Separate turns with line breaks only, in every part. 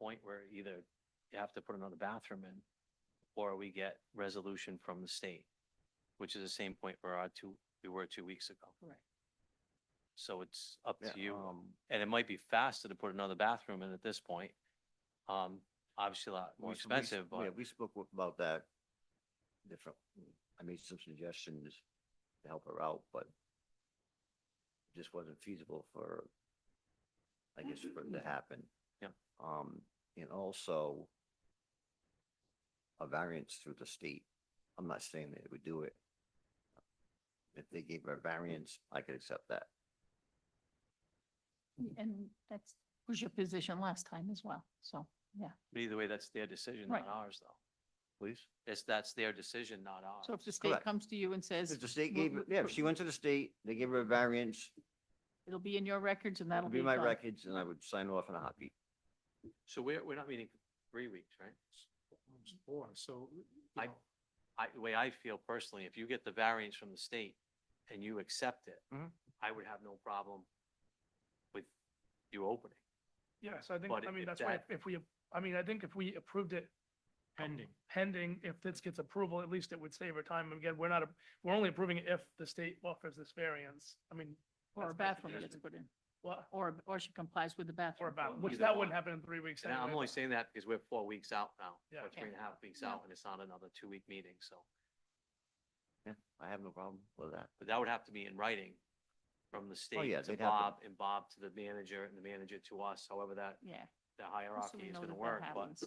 point where either you have to put another bathroom in or we get resolution from the state, which is the same point where our two, we were two weeks ago.
Right.
So it's up
Yeah,
to you.
um,
And it might be faster to put another bathroom in at this point. Um, obviously a lot more
we s- we s-
expensive,
Yeah,
but
we spoke w- about that different, I made some suggestions to help her out, but it just wasn't feasible for, I guess, for it to happen.
Yeah.
Um, and also a variance through the state. I'm not saying that it would do it. If they gave her a variance, I could accept that.
And that's, was your position last time as well, so, yeah.
but either way, that's their decision, not
Right.
ours though.
Please?
It's, that's their decision, not
So if
ours.
the state
Correct.
comes to you and says,
If the state
w-
gave, her-
w-
yeah, if she went to the state, they gave her a variance,
it'll be in your records and that'll
it'd
be
be my
done.
records, and I would sign off in a heartbeat.
So we're, we're not meeting for three weeks, right?
Four, so. you
I-
know,
I, the way I feel personally, if you get the variance from the state and you accept it,
Mhm.
I would have no problem with you opening.
Yes, I think,
But
I mean,
if
that's why
that-
if we, I mean, I think if we approved it. Pending. Pending, if this gets approval, at least it would save our time. And Again, we're not, a- we're only approving it if the state offers this variance. I mean,
Or a
That's my
bathroom gets put in,
what,
or, or she complies with the
or
bathroom.
about, which
Either
that
one.
wouldn't happen in three weeks.
And I'm
anyway,
only
but-
saying that because we're four weeks out now,
Yeah.
or three and a half weeks out, and it's not another two-week meeting, so.
Yeah, I have no problem with that.
But that would have to be in writing from the state
Oh, yeah,
to
they'd have to-
Bob, and Bob to the manager, and the manager to us, however that,
Yeah.
the
just so
hierarchy
we
is
know
gonna
that that
work, but
happens.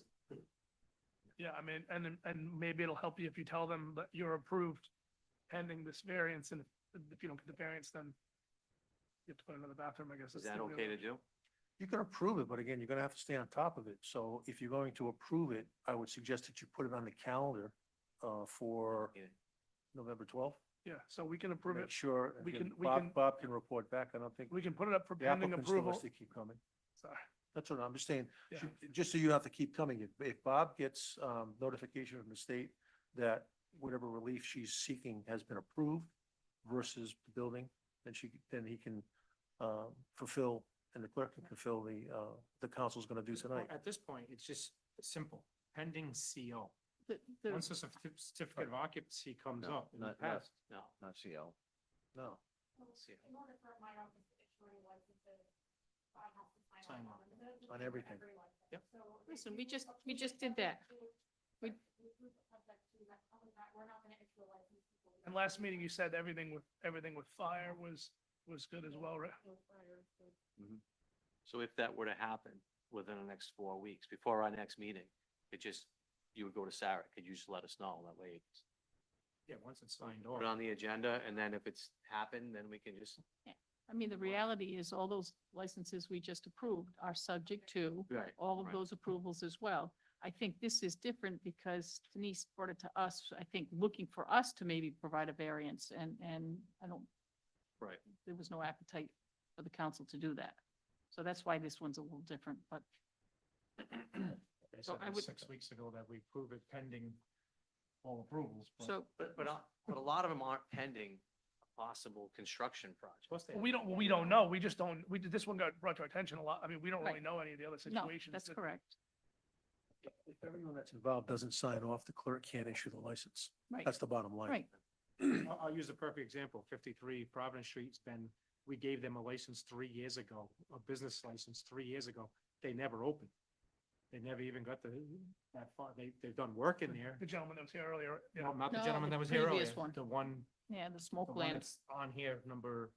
Yeah, I mean, and, and maybe it'll help you if you tell them that you're approved pending this variance and if- if you don't get the variance, then you have to put another bathroom, I guess.
is
that's
that
the only
okay
other-
to do?
You can approve it, but again, you're gonna have to stay on top of it. So if you're going to approve it, I would suggest that you put it on the calendar uh, for
Yeah.
November twelfth.
Yeah, so we can approve
Make
it.
sure,
We
and
can- we can-
Bob, Bob can report back. I don't think
We can put it up for
the
pending
applicant still
approval.
has to keep coming.
Sorry.
That's what I'm just saying.
Yeah.
ju- Just so you have to keep coming. If, if Bob gets um, notification from the state that whatever relief she's seeking has been approved versus the building, then she, then he can um, fulfill, and the clerk can fulfill the, uh, the council's gonna do
Well,
tonight.
At this point, it's just simple, pending CO.
The- the-
Once the certif- certificate of occupancy comes
No,
up in the
not- not-
past,
No.
Not CL.
No.
See it.
In order for my office to issue a license, the bond has to sign
Sign
off
off.
on it.
On everything.
Everyone.
Yep.
So if
Listen,
you
we just- we
approve
just
it
did that.
subject to-
We-
if you approve it subject to that, other than that, we're not gonna issue a license. before we-
And last meeting, you said everything with, everything with fire was, was good as well, right?
No prior, so-
So if that were to happen within the next four weeks, before our next meeting, it just, you would go to Sarah, could you just let us know? That way, it's
yeah, once it's signed
put
off.
it on the agenda, and then if it's happened, then we can just.
I mean, the reality is all those licenses we just approved are subject to
Right.
all of
Right.
those approvals as well. I think this is different because Denise brought it to us, I think, looking for us to maybe provide a variance and, and I don't.
Right.
There was no appetite for the council to do that. So that's why this one's a little different, but
They
so
said
I
that
would-
Six weeks ago that we approve it pending all approvals. but-
so,
But, but, a- but a lot of them aren't pending a possible construction project.
Plus they
We don't, we don't know. We just don't, we, did- this one got brought to our attention a lot. I mean, we don't really
Right.
know any of the other
no,
situations.
that's
that-
correct.
If everyone that's involved doesn't sign off, the clerk can't issue the license.
Right,
That's the bottom line.
right.
I'll, I'll use the perfect example, fifty-three Providence Street's been, we gave them a license three years ago, a business license three years ago. They never opened. They never even got the, that far. They, they've done work in there.
The gentleman that was here earlier, you
No,
know,
Not the
No,
gentleman
the
that was here earlier,
previous one.
the one
Yeah, the smoke
The one
lamps.
that's on here, number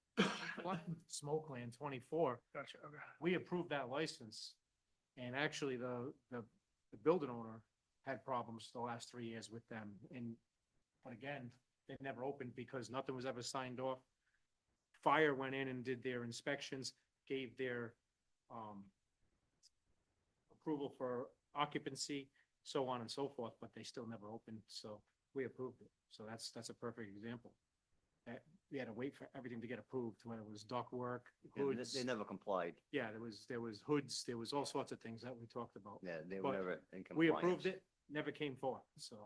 one, smoke land twenty-four,
gotcha, okay.
we approved that license. And actually, the, the, the building owner had problems the last three years with them, and, but again, they never opened because nothing was ever signed off. Fire went in and did their inspections, gave their, um, approval for occupancy, so on and so forth, but they still never opened, so we approved it. So that's, that's a perfect example. That, we had to wait for everything to get approved, when it was dock work,
And they-
hoods.
They never complied.
Yeah, there was, there was hoods, there was all sorts of things that we talked about.
Yeah, they
But
were never in compliance.
We approved it, never came forth, so.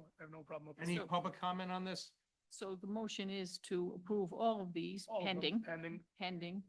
I have no problem with
Any
this.
So-
public comment on this?
So the motion is to approve all of these
All of them
pending,
Pending,
pending